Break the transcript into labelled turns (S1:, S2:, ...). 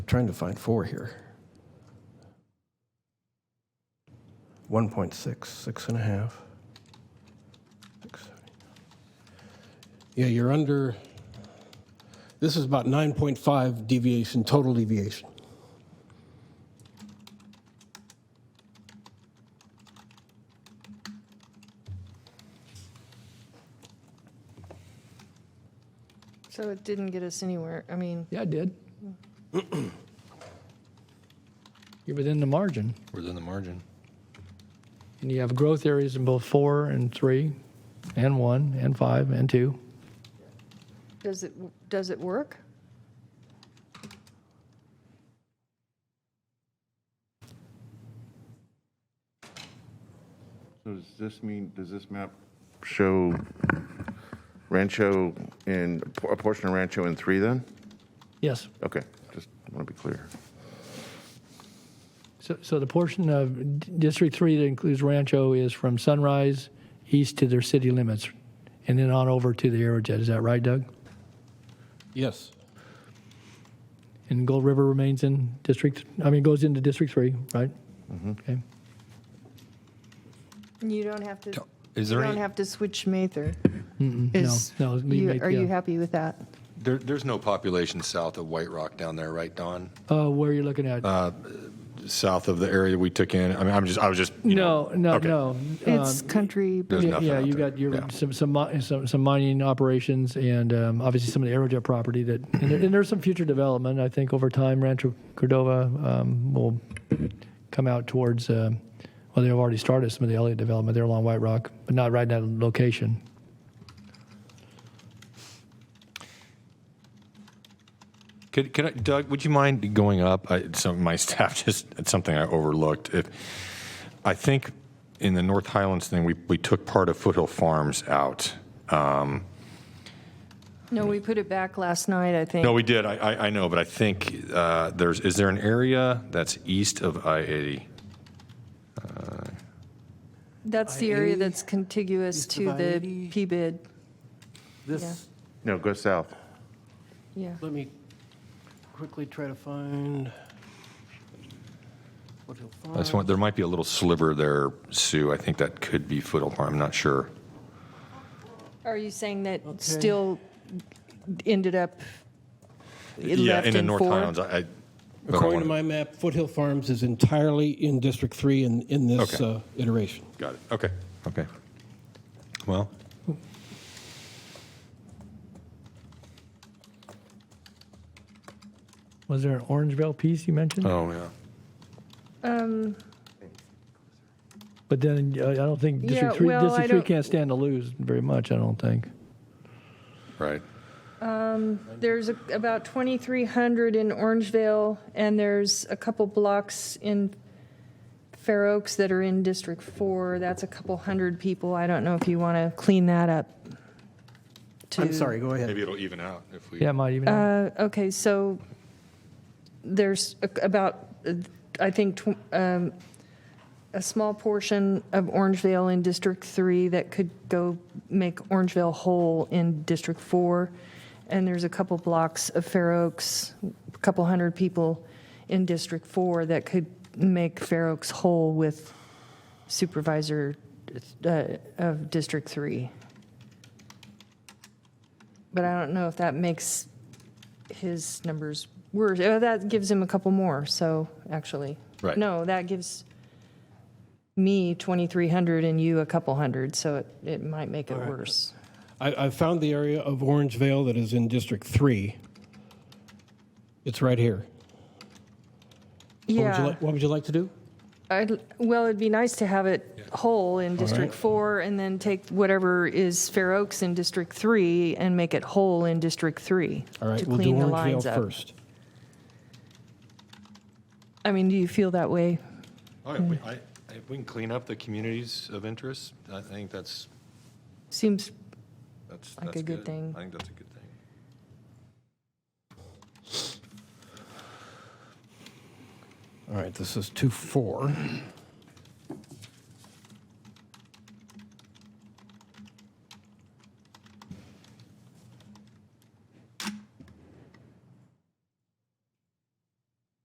S1: trying to find four here. 1.6, six and a half. Six, seven. Yeah, you're under, this is about 9.5 deviation, total deviation.
S2: So it didn't get us anywhere. I mean,
S3: Yeah, I did. You're within the margin,
S4: Within the margin.
S3: and you have growth areas in both four and three, and one, and five, and two.
S2: does it, does it work?
S5: So does this mean, does this map show Rancho in, a portion of Rancho in three then?
S3: Yes.
S5: Okay, just want to be clear.
S3: So, so the portion of D- District Three that includes Rancho is from Sunrise east to their city limits, and then on over to the Aerojet. Is that right, Doug?
S1: Yes.
S3: And Gold River remains in District. I mean, goes into District Three, right? Okay.
S2: And You don't have to,
S4: Is
S2: you
S4: there
S2: don't
S4: any,
S2: have to switch Mather.
S3: No,
S2: Is-
S3: no. leave
S2: you-
S3: Nate,
S2: Are you
S3: yeah.
S2: happy with that?
S4: there, there's no population south of White Rock down there, right, Don?
S3: Uh, where are you looking at?
S4: South of the area we took in. I mean, I'm just, I was just, you
S3: no,
S4: know.
S3: no,
S4: okay.
S3: no.
S2: It's
S3: Um,
S2: country,
S4: There's
S3: yeah,
S4: nothing
S3: yeah,
S4: out
S3: you
S4: there.
S3: got your
S4: Yeah.
S3: some some, mi- some some mining operations and um, obviously some of the aerojet property that and, there, and there's some future development. I think over time, Rancho Cordova um, will come out towards. um well, they've already started some of the Elliott development there along White Rock, but not right in that location.
S4: Could, could I, Doug, would you mind going up? I, some my staff just it's something I overlooked. If I think in the North Highlands thing, we we took part of Foothill Farms out.
S2: No, we put it back last night, I think.
S4: No, we did. I I, I know, but I think uh, there's is there an area that's east of I eighty?
S2: That's the area that's contiguous
S6: east of
S2: to the
S6: I-80.
S2: P-bid,
S6: This,
S5: No, go south.
S2: yeah.
S6: let me quickly try to find what he'll find.
S4: That's one. There might be a little sliver there, Sue. I think that could be Foothill Farm. I'm not sure.
S2: Are you saying that still ended up, it
S4: yeah,
S2: left
S4: in the
S2: in
S4: North
S2: four?
S4: Highlands. I, I but I
S1: According
S4: wanna-
S1: to my map, Foothill Farms is entirely in District 3 in, in this
S4: Okay.
S1: uh, iteration.
S4: Got it. Okay. Okay. Well,
S3: Was there an Orangevale piece you mentioned?
S4: oh yeah.
S3: But then uh, I don't think District
S2: Yeah,
S3: Three.
S2: well, I
S3: District Three
S2: don't-
S3: can't stand to lose very much. I don't think.
S4: Right.
S2: There's a- about 2,300 in Orangevale, and there's a couple blocks in Fair Oaks that are in District 4. That's a couple hundred people. I don't know if you want to clean that up.
S1: I'm
S2: to-
S1: sorry, go ahead.
S4: Maybe it'll even out if we.
S3: Yeah, it might even.
S2: Uh, Okay, so there's a- about, uh, I think, tw- um, a small portion of Orangevale in District 3 that could go make Orangevale whole in District 4. And there's a couple blocks of Fair Oaks, a couple hundred people in District 4 that could make Fair Oaks whole with Supervisor uh, of District 3. But I don't know if that makes his numbers worse. Oh, that gives him a couple more, so, actually.
S4: Right.
S2: No, that gives me 2,300 and you a couple hundred, so it, it might make it worse.
S1: I, I found the area of Orangevale that is in District 3. It's right here. What would you
S2: Yeah,
S1: like- What would you like to do?
S2: I'd, well, it'd be nice to have it whole in District 4 and then take whatever is Fair Oaks in District 3 and make it whole in District 3.
S1: All right,
S2: to
S1: we'll do
S2: clean the lines
S1: Orangevale
S2: up.
S1: first.
S2: I mean, do you feel that way?
S4: Oh, yeah, we, I, if we can clean up the communities of interest, I think that's,
S2: Seems,
S4: that's,
S2: Like
S4: that's
S2: a good thing.
S4: I think that's a good thing.
S1: All right, this is 2-4.